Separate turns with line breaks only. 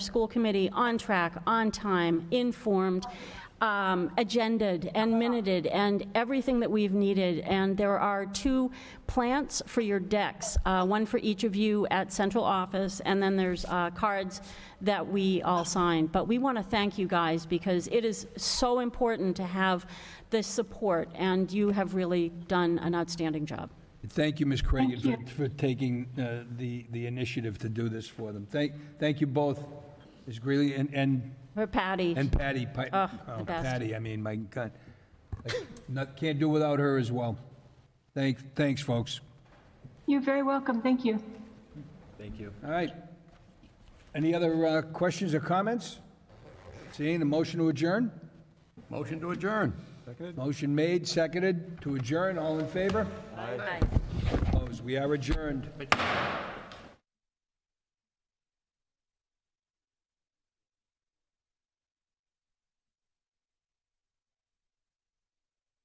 school committee on track, on time, informed, um, agended, and minuted, and everything that we've needed. And there are two plants for your decks, uh, one for each of you at central office, and then there's uh, cards that we all sign. But we want to thank you guys, because it is so important to have this support, and you have really done an outstanding job.
Thank you, Ms. Craig, for- for taking uh, the the initiative to do this for them. Thank thank you both, Ms. Greeley and and
For Patty.
and Patty. Pi-
Oh,
oh,
the best.
Patty, I mean, my God. Like, not- Can't do without her as well. Thanks, Thanks, folks.
You're very welcome, thank you.
All right. Any other uh, questions or comments? Seeing a motion to adjourn?
Motion to adjourn.
Motion made, seconded, to adjourn. All in favor? Opposed? We are adjourned.